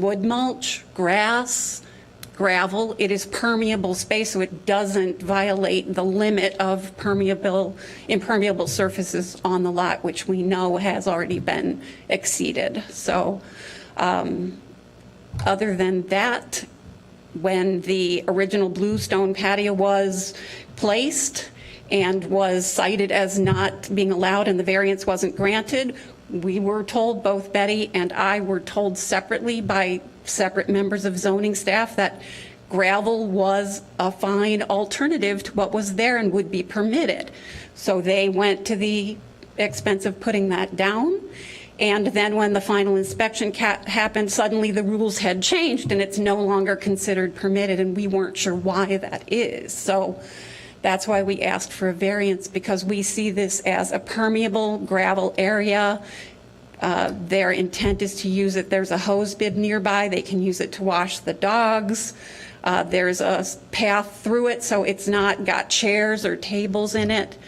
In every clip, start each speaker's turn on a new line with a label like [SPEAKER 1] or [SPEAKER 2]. [SPEAKER 1] wood mulch, grass, gravel. It is permeable space, so it doesn't violate the limit of permeable, impermeable surfaces on the lot, which we know has already been exceeded. So um, other than that, when the original bluestone patio was placed and was cited as not being allowed and the variance wasn't granted, we were told, both Betty and I were told separately by separate members of zoning staff that gravel was a fine alternative to what was there and would be permitted. So they went to the expense of putting that down. And then when the final inspection ca- happened, suddenly the rules had changed and it's no longer considered permitted, and we weren't sure why that is. So that's why we asked for a variance, because we see this as a permeable gravel area. Uh, Their intent is to use it, there's a hose bib nearby, they can use it to wash the dogs. Uh, There's a s- path through it, so it's not got chairs or tables in it.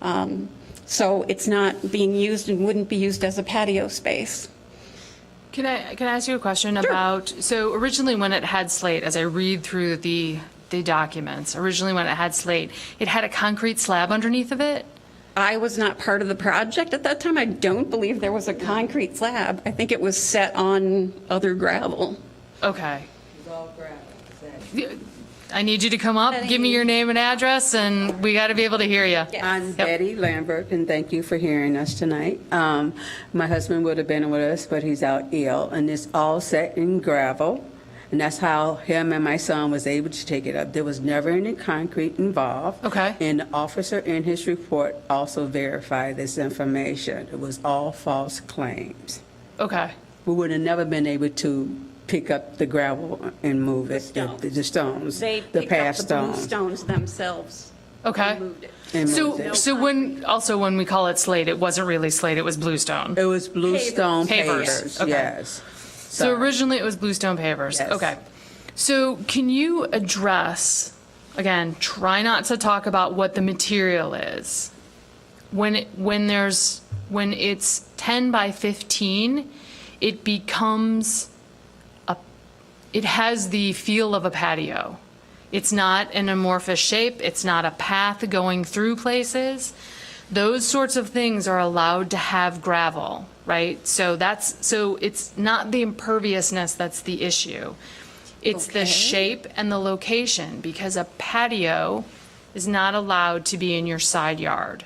[SPEAKER 1] Um, So it's not being used and wouldn't be used as a patio space.
[SPEAKER 2] Can I, can I ask you a question about, so originally when it had slate, as I read through the, the documents, originally when it had slate, it had a concrete slab underneath of it?
[SPEAKER 1] I was not part of the project at that time. I don't believe there was a concrete slab. I think it was set on other gravel.
[SPEAKER 2] Okay. Y- I need you to come up, give me your name and address, and we got to be able to hear you.
[SPEAKER 3] I'm Betty Lambert, and thank you for hearing us tonight. Um, My husband would have been with us, but he's out ill, and it's all set in gravel, and that's how him and my son was able to take it up. There was never any concrete involved.
[SPEAKER 2] Okay.
[SPEAKER 3] And the officer in his report also verified this information. It was all false claims.
[SPEAKER 2] Okay.
[SPEAKER 3] We would have never been able to pick up the gravel and move it,
[SPEAKER 1] The
[SPEAKER 3] the the stones,
[SPEAKER 1] They
[SPEAKER 3] the
[SPEAKER 1] picked up
[SPEAKER 3] past
[SPEAKER 1] the blue
[SPEAKER 3] stones.
[SPEAKER 1] stones themselves.
[SPEAKER 2] Okay.
[SPEAKER 3] And moved
[SPEAKER 2] So,
[SPEAKER 3] it.
[SPEAKER 2] so when, also when we call it slate, it wasn't really slate, it was bluestone.
[SPEAKER 3] It was bluestone
[SPEAKER 2] Pavers.
[SPEAKER 3] pavers,
[SPEAKER 2] Okay.
[SPEAKER 3] yes.
[SPEAKER 2] So originally it was bluestone pavers.
[SPEAKER 3] Yes.
[SPEAKER 2] Okay. So can you address, again, try not to talk about what the material is. When it, when there's when it's 10 by 15, it becomes a it has the feel of a patio. It's not an amorphous shape, it's not a path going through places. Those sorts of things are allowed to have gravel, right? So that's so it's not the imperviousness that's the issue. It's the shape and the location because a patio is not allowed to be in your side yard.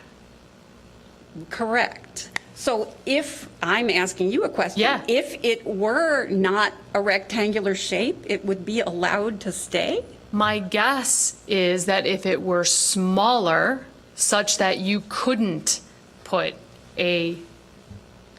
[SPEAKER 1] Correct. So if, I'm asking you a question.
[SPEAKER 2] Yeah.
[SPEAKER 1] If it were not a rectangular shape, it would be allowed to stay?
[SPEAKER 2] My guess is that if it were smaller, such that you couldn't put a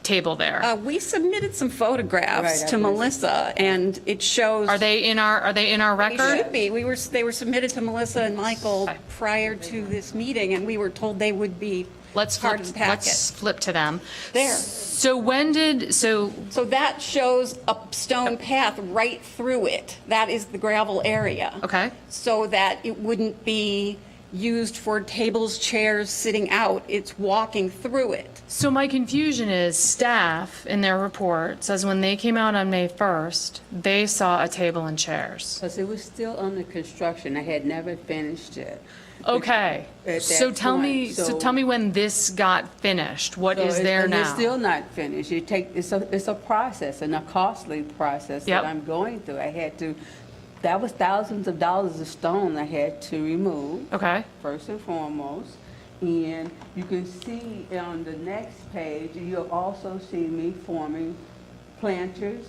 [SPEAKER 2] table there.
[SPEAKER 1] Uh, We submitted some photographs
[SPEAKER 3] Right, I
[SPEAKER 1] to
[SPEAKER 3] believe-
[SPEAKER 1] Melissa, and it shows.
[SPEAKER 2] Are they in our, are they in our
[SPEAKER 1] They
[SPEAKER 2] record?
[SPEAKER 1] should be. We were, they were submitted to Melissa and Michael prior to this meeting, and we were told they would be
[SPEAKER 2] Let's
[SPEAKER 1] part
[SPEAKER 2] flip,
[SPEAKER 1] of the
[SPEAKER 2] let's
[SPEAKER 1] packet.
[SPEAKER 2] flip to them.
[SPEAKER 1] There.
[SPEAKER 2] So when did, so,
[SPEAKER 1] So that shows a stone path right through it. That is the gravel area.
[SPEAKER 2] Okay.
[SPEAKER 1] So that it wouldn't be used for tables, chairs, sitting out. It's walking through it.
[SPEAKER 2] so my confusion is staff in their report says when they came out on May 1st, they saw a table and chairs.
[SPEAKER 3] Because it was still under construction, I had never finished it.
[SPEAKER 2] Okay.
[SPEAKER 3] At
[SPEAKER 2] So
[SPEAKER 3] that
[SPEAKER 2] tell me,
[SPEAKER 3] point,
[SPEAKER 2] so
[SPEAKER 3] so-
[SPEAKER 2] tell me when this got finished. What
[SPEAKER 3] So
[SPEAKER 2] is
[SPEAKER 3] it-
[SPEAKER 2] there
[SPEAKER 3] and
[SPEAKER 2] now?
[SPEAKER 3] it's still not finished, you take, it's a, it's a process, and a costly process
[SPEAKER 2] Yep.
[SPEAKER 3] that I'm going through. I had to, that was thousands of dollars of stone I had to remove.
[SPEAKER 2] Okay.
[SPEAKER 3] First and foremost, and you can see on the next page, you'll also see me forming planters,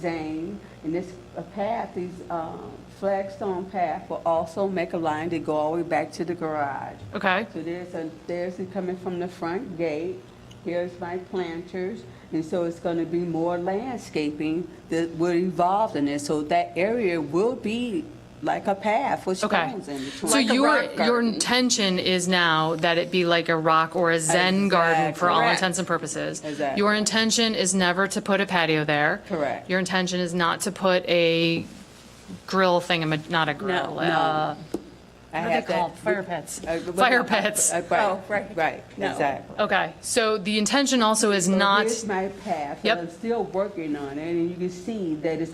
[SPEAKER 3] zane, and this a path, these um, flagstone path will also make a line to go all the way back to the garage.
[SPEAKER 2] Okay.
[SPEAKER 3] So there's a, there's it coming from the front gate, here's my planters, and so it's gonna be more landscaping that will evolve in it, so that area will be like a path with
[SPEAKER 2] Okay.
[SPEAKER 3] stones in between.
[SPEAKER 2] So
[SPEAKER 1] a
[SPEAKER 2] your,
[SPEAKER 1] rock
[SPEAKER 2] your
[SPEAKER 1] garden.
[SPEAKER 2] intention is now that it be like a rock or a zen garden for all
[SPEAKER 1] Exactly.
[SPEAKER 2] intents and purposes?
[SPEAKER 3] Exactly.
[SPEAKER 2] Your intention is never to put a patio there?
[SPEAKER 3] Correct.
[SPEAKER 2] Your intention is not to put a grill thing, not a grill?
[SPEAKER 3] no.
[SPEAKER 2] uh,
[SPEAKER 3] I
[SPEAKER 2] What are
[SPEAKER 3] have
[SPEAKER 2] they
[SPEAKER 3] that-
[SPEAKER 2] called? Fire pits?
[SPEAKER 3] Uh, but-
[SPEAKER 2] Fire pits.
[SPEAKER 3] Uh,
[SPEAKER 1] Oh, right.
[SPEAKER 3] Right, right,
[SPEAKER 1] No.
[SPEAKER 3] exactly.
[SPEAKER 2] Okay, so the intention also is
[SPEAKER 3] So
[SPEAKER 2] not.
[SPEAKER 3] Here's my path,
[SPEAKER 2] Yep.
[SPEAKER 3] and I'm still working on it, and you can see that it's